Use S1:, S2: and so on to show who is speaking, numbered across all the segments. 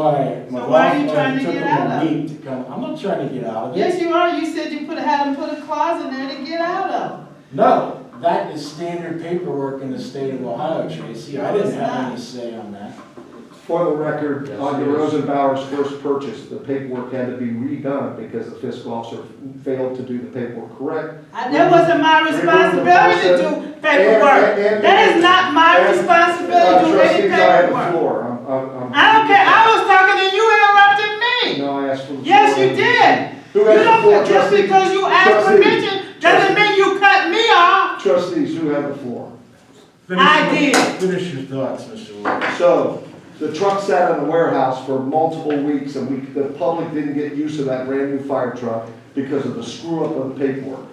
S1: why my
S2: So why are
S1: wife
S2: you trying
S1: wanted
S2: to
S1: took
S2: get
S1: them a
S2: out of it?
S1: week to come. I'm not trying to get out of it.
S2: Yes, you are. You said you put, had them put a closet there to get out of.
S1: No, that is standard paperwork in the state of Ohio, Tracy. I didn't
S2: No, it's
S1: have any
S2: not.
S1: say on that.
S3: For the record,
S4: Yes,
S3: on the
S4: yes.
S3: Rosenbauer's first purchase, the paperwork had to be redone because the fiscal officer failed to do the paperwork correct.
S2: I- That wasn't my responsibility to do
S3: And- and-
S2: paperwork.
S3: and-
S2: That is not my
S3: and-
S2: responsibility to
S3: Uh,
S2: do any
S3: Trustees, I have the
S2: paperwork.
S3: floor. I'm- I'm- I'm-
S2: I don't care. I was talking and you interrupted me.
S3: No, I asked for the floor.
S2: Yes, you did.
S3: Who
S2: You
S3: has the
S2: don't,
S3: floor,
S2: just
S3: trustees?
S2: because you asked
S3: Trustee.
S2: permission doesn't
S3: Trustee.
S2: mean you cut me off.
S3: Trustees, who have the floor?
S2: I
S1: Finish your-
S2: did.
S1: Finish your thoughts, Mr. Wood.
S3: So, the truck sat in the warehouse for multiple weeks, and we, the public didn't get use of that brand-new fire truck because of the screw-up of the paperwork.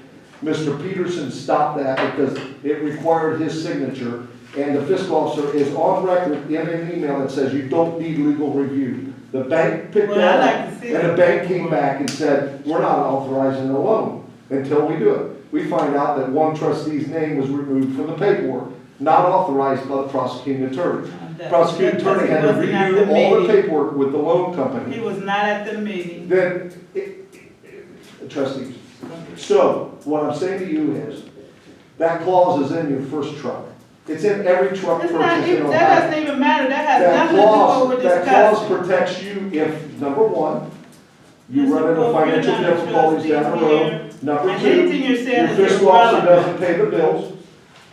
S3: Mr. Peterson stopped that because it required his signature, and the fiscal officer is on record in an email that says you don't need legal review. The bank picked
S2: Well, I'd
S3: that
S2: like
S3: up,
S2: to see
S3: and the
S2: it.
S3: bank came back and said, we're not authorizing a loan until we do it. We find out that one trustee's name was removed from the paperwork, not authorized by the prosecuting attorney. Prosecuting attorney had to
S2: Wasn't at the
S3: redo all the
S2: meeting.
S3: paperwork with the loan
S2: He
S3: company.
S2: was not at the meeting.
S3: Then, it- it- trustees, so what I'm saying to you is, that clause is in your first truck. It's in every truck
S2: It's
S3: purchase
S2: not
S3: in
S2: even,
S3: Ohio.
S2: that doesn't even matter. That
S3: That
S2: has nothing to
S3: clause,
S2: do with this
S3: that
S2: custom.
S3: clause protects you if, number one, you
S2: Mr.
S3: run into
S2: Pope, you're
S3: financial
S2: not a
S3: difficulties down the
S2: trustee here.
S3: road. Number
S2: And
S3: two,
S2: anything you're
S3: your
S2: saying is
S3: fiscal officer
S2: irrelevant.
S3: doesn't pay the bills.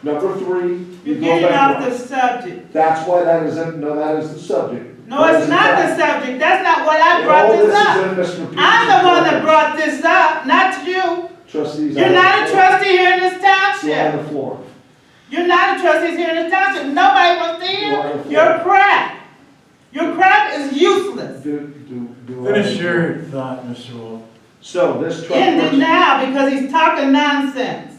S3: Number three, you
S2: You're
S3: go
S2: getting off
S3: bankrupt.
S2: the subject.
S3: That's why that isn't, no, that is the subject.
S2: No, it's not
S3: the
S2: the subject. That's not what I
S3: and
S2: brought
S3: all
S2: this up.
S3: this is in Mr. Peterson's.
S2: I'm the one that
S3: report.
S2: brought this up, not you.
S3: Trustees. I
S2: You're not a
S3: have-
S2: trustee here in this
S3: You have
S2: township.
S3: the floor.
S2: You're not a trustee here in this township. Nobody wants to
S3: You're on
S2: hear
S3: the floor.
S2: your crap. Your crap is useless.
S3: Do, do, do. I-
S1: Finish your thought, Mr. Wood.
S3: So this truck
S2: End it
S3: person,
S2: now because he's talking nonsense.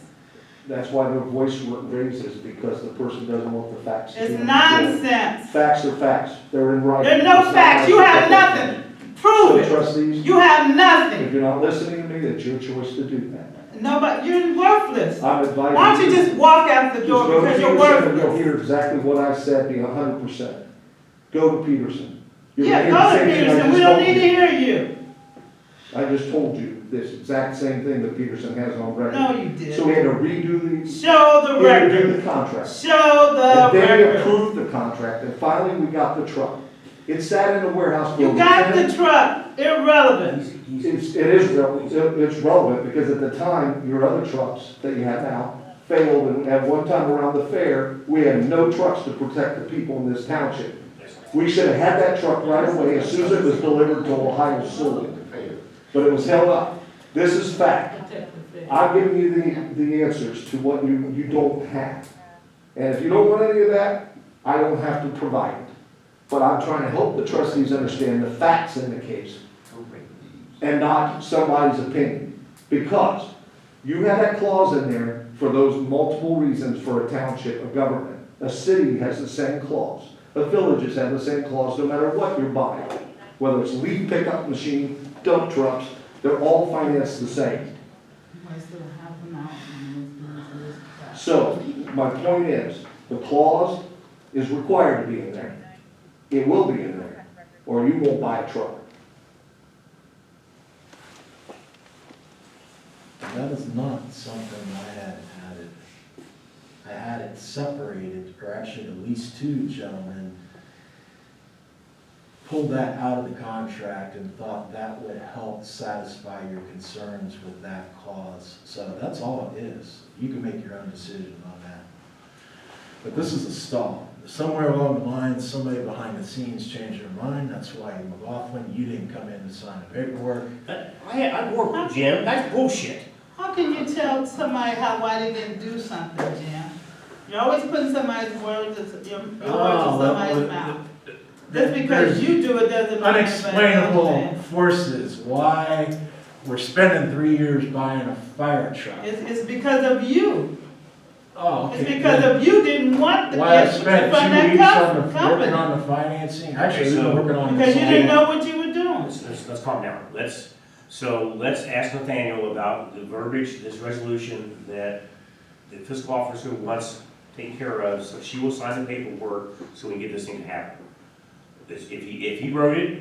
S3: that's why their voice raises, because the person doesn't want the facts. to be
S2: It's
S3: on the floor.
S2: nonsense.
S3: Facts are facts, they're in writing.
S2: There are no
S3: It's not
S2: facts. You
S3: like-
S2: have nothing.
S3: So
S2: Prove it.
S3: trustees,
S2: You have
S3: if
S2: nothing.
S3: you're not listening to me, that's your choice to do that.
S2: Nobody, you're worthless.
S3: I'm advising.
S2: Why don't you just walk out the
S3: Just
S2: door
S3: go to
S2: because you're
S3: Peterson and You'll
S2: worthless?
S3: hear exactly what I said, be hundred percent. Go to Peterson. You're
S2: Yeah,
S3: gonna
S2: go
S3: hear
S2: to
S3: the same thing I
S2: Peterson, we
S3: just
S2: don't
S3: told
S2: need to
S3: you.
S2: hear you.
S3: I just told you this exact same thing that Peterson has on record.
S2: No, you
S3: So we
S2: didn't.
S3: had to redo the,
S2: Show the
S3: redo
S2: record,
S3: the contract.
S2: show
S3: And
S2: the
S3: then we
S2: record.
S3: approved the contract, and finally we got the truck. It sat in the warehouse for.
S2: You got the
S3: 10
S2: truck, irrelevant.
S3: It's, it is, re- it- it's relevant, because at the time, your other trucks that you have now failed, and at one time around the fair, we had no trucks to protect the people in this township. We should have had that truck right away as soon as it was delivered to Ohio Sewer, but it was held up. This is fact. I've given you the, the answers to what you, you don't have. And if you don't want any of that, I don't have to provide it. But I'm trying to help the trustees understand the facts in the case and not somebody's opinion. Because you have that clause in there for those multiple reasons for a township of government. A city has the same clause. The villages have the same clause no matter what you're buying. Whether it's leaf pickup machine, dump trucks, they're all financed the same. So, my point is, the clause is required to be in there. It will be in there, or you won't buy a truck.
S4: That is not something I had had it, I had it separated, or actually at least two gentlemen pulled that out of the contract and thought that would help satisfy your concerns with that clause. So that's all it is. You can make your own decision on that. But this is a stall. Somewhere along the line, somebody behind the scenes changed their mind. That's why McLaughlin, you didn't come in to sign the paperwork.
S5: I, I work with Jim, that's bullshit.
S2: How can you tell somebody how, why they didn't do something, Jim? You're always putting somebody's words, in- your your words in
S4: Oh, well,
S2: somebody's
S4: well,
S2: mouth.
S4: th-
S2: Just because
S4: there's
S2: you do it doesn't mean. everybody else
S4: Unexplainable
S2: does.
S4: forces, why we're spending three years buying a fire truck.
S2: It's, it's because of you.
S4: Oh, okay.
S2: It's because of you didn't want the
S4: Why I
S2: gift from
S4: spent two
S2: that
S4: weeks on
S2: cus-
S4: the, working
S2: company.
S4: on the financing, actually, we've
S5: so-
S4: been working on. the
S2: Because you
S4: design.
S2: didn't know what you were doing.
S5: Let's, let's, let's calm down, let's, so let's ask Nathaniel about the verbiage, this resolution that the fiscal officer wants taken care of, so she will sign the paperwork, so we can get this thing to happen. If if he, if he wrote it,